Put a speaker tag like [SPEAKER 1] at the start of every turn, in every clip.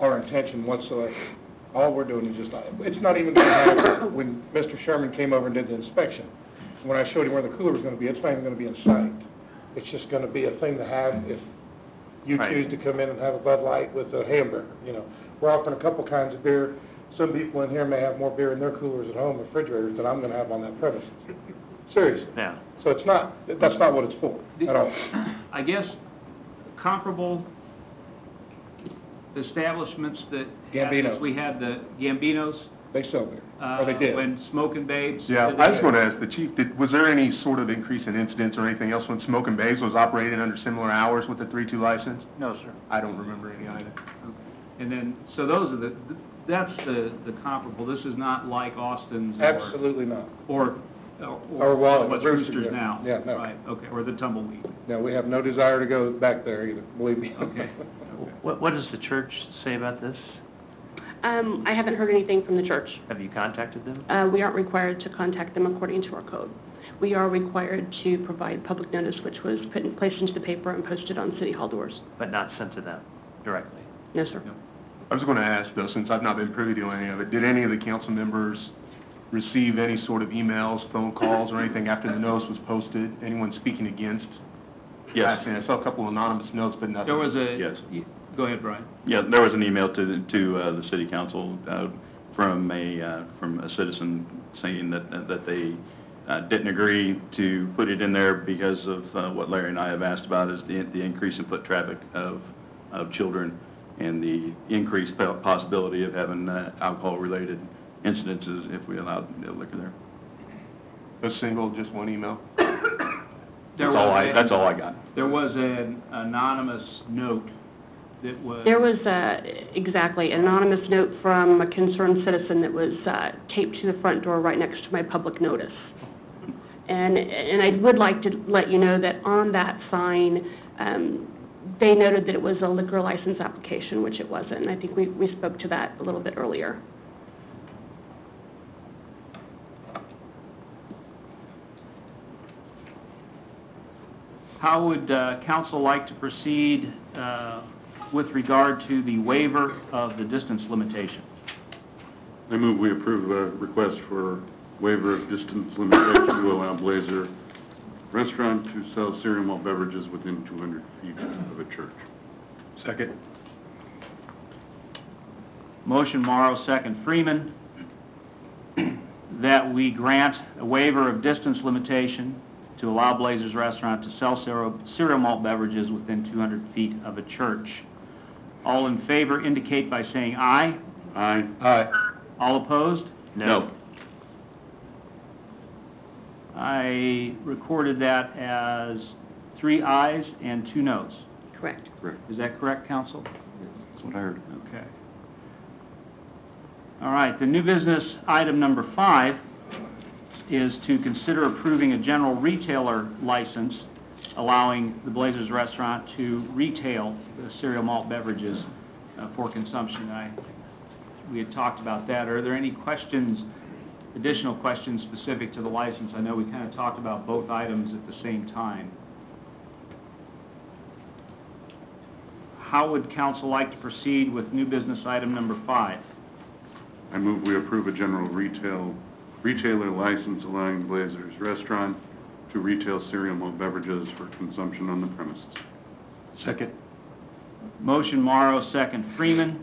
[SPEAKER 1] our intention whatsoever. All we're doing is just, it's not even gonna happen when Mr. Sherman came over and did the inspection. When I showed him where the cooler's gonna be, it's not even gonna be in sight. It's just gonna be a thing to have if you
[SPEAKER 2] Right.
[SPEAKER 1] choose to come in and have a Bud Light with a hamburger, you know. We're offering a couple kinds of beer. Some people in here may have more beer in their coolers at home, refrigerators, than I'm gonna have on that premises. Seriously.
[SPEAKER 2] Yeah.
[SPEAKER 1] So it's not, that's not what it's for, at all.
[SPEAKER 3] I guess comparable establishments that. had this,
[SPEAKER 1] Gambino's.
[SPEAKER 3] We had the Gambinos.
[SPEAKER 1] They sell beer, or
[SPEAKER 3] uh,
[SPEAKER 1] Oh, they did.
[SPEAKER 3] When Smoking Babes.
[SPEAKER 2] Yeah, I just want to ask the chief, did, was there any sort of increase in incidents or anything else when Smoke and Bays was operated under similar hours with the three-two license?
[SPEAKER 3] No, sir.
[SPEAKER 2] I don't remember any either.
[SPEAKER 3] And then, so those are the, that's the, the comparable. This is not like Austin's or.
[SPEAKER 1] Absolutely not.
[SPEAKER 3] Or, or.
[SPEAKER 1] Or Wally,
[SPEAKER 3] What's
[SPEAKER 1] Brewster's,
[SPEAKER 3] Roosters now.
[SPEAKER 1] yeah, no.
[SPEAKER 3] Right, okay, or the Tumbleweed.
[SPEAKER 1] No, we have no desire to go back there either, believe me.
[SPEAKER 3] Okay.
[SPEAKER 4] What, what does the church say about this?
[SPEAKER 5] Um, I haven't heard anything from the church.
[SPEAKER 4] Have you contacted them?
[SPEAKER 5] Uh, we aren't required to contact them according to our code. We are required to provide public notice, which was put in, placed into the paper and posted on city hall doors.
[SPEAKER 4] But not sent to them directly?
[SPEAKER 5] No, sir.
[SPEAKER 2] I was going to ask though, since I've not been privy to any of it, did any of the council members receive any sort of emails, phone calls, or anything after the notice was posted? Anyone speaking against?
[SPEAKER 6] Yes.
[SPEAKER 2] I saw a couple anonymous notes, but nothing.
[SPEAKER 3] There was a.
[SPEAKER 6] Yes.
[SPEAKER 3] y- Go ahead, Brian.
[SPEAKER 6] Yeah, there was an email to, to uh, the city council uh, from a, uh, from a citizen saying that, that they uh, didn't agree to put it in there because of uh, what Larry and I have asked about is the, the increase in foot traffic of, of children and the increased po- possibility of having uh, alcohol-related incidences if we allowed liquor there.
[SPEAKER 2] A single, just one email?
[SPEAKER 3] There
[SPEAKER 6] That's all
[SPEAKER 3] was
[SPEAKER 6] I,
[SPEAKER 3] a-
[SPEAKER 6] that's all I got.
[SPEAKER 3] There was an anonymous note that was.
[SPEAKER 5] There was, uh, exactly, an anonymous note from a concerned citizen that was, uh, taped to the front door right next to my public notice. And, and I would like to let you know that on that sign, um, they noted that it was a liquor license application, which it wasn't. And I think we, we spoke to that a little bit earlier.
[SPEAKER 3] How would uh, council like to proceed uh, with regard to the waiver of the distance limitation?
[SPEAKER 7] I move we approve a request for waiver of distance limitation to allow Blazer Restaurant to sell cereal malt beverages within 200 feet of a church.
[SPEAKER 2] Second.
[SPEAKER 3] Motion Morrow, second Freeman, that we grant a waiver of distance limitation to allow Blazers Restaurant to sell cereal cereal malt beverages within 200 feet of a church. All in favor indicate by saying aye.
[SPEAKER 7] Aye.
[SPEAKER 1] Aye.
[SPEAKER 3] All opposed?
[SPEAKER 6] No.
[SPEAKER 3] I recorded that as three ayes and two noes.
[SPEAKER 5] Correct.
[SPEAKER 3] Is that correct, counsel?
[SPEAKER 6] That's what I heard.
[SPEAKER 3] Okay. All right, the new business item number five is to consider approving a general retailer license allowing the Blazers Restaurant to retail the cereal malt beverages uh, for consumption. I, we had talked about that. Are there any questions, additional questions specific to the license? I know we kind of talked about both items at the same time. How would council like to proceed with new business item number five?
[SPEAKER 7] I move we approve a general retail, retailer license allowing Blazer's Restaurant to retail cereal malt beverages for consumption on the premises.
[SPEAKER 2] Second.
[SPEAKER 3] Motion Morrow, second Freeman,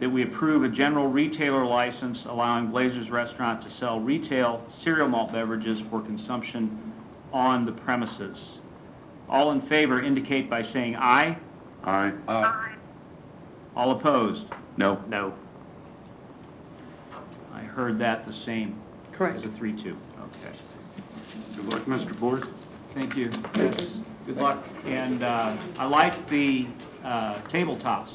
[SPEAKER 3] that we approve a general retailer license allowing Blazers Restaurant to sell retail cereal malt beverages for consumption on the premises. All in favor indicate by saying aye.
[SPEAKER 7] Aye.
[SPEAKER 3] All opposed?
[SPEAKER 6] No.
[SPEAKER 4] No.
[SPEAKER 3] I heard that the same as
[SPEAKER 5] Correct.
[SPEAKER 3] a three-two. Okay.
[SPEAKER 7] Good luck, Mr. Board.
[SPEAKER 3] Thank you. Good luck. And, uh, I like the, uh, tabletops.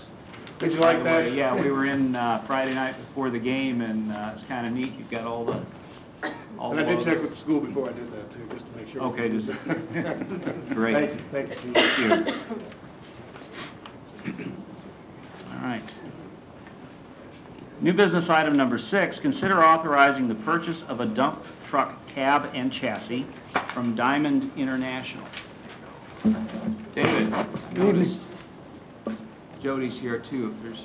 [SPEAKER 1] Did you like
[SPEAKER 3] By the
[SPEAKER 1] that?
[SPEAKER 3] way, Yeah, we were in uh Friday night before the game, and uh it's kind of neat, you've got all the, all the...
[SPEAKER 1] And I did check
[SPEAKER 3] logos.
[SPEAKER 1] with the school before I did that too, just to make sure.
[SPEAKER 3] Okay, just-
[SPEAKER 1] Oh.
[SPEAKER 3] Great.
[SPEAKER 1] Thank you, thank you.
[SPEAKER 3] Thank you. All right. New business item number six, consider authorizing the purchase of a dump truck cab and chassis from Diamond International. David, notice Jody's here too, if there's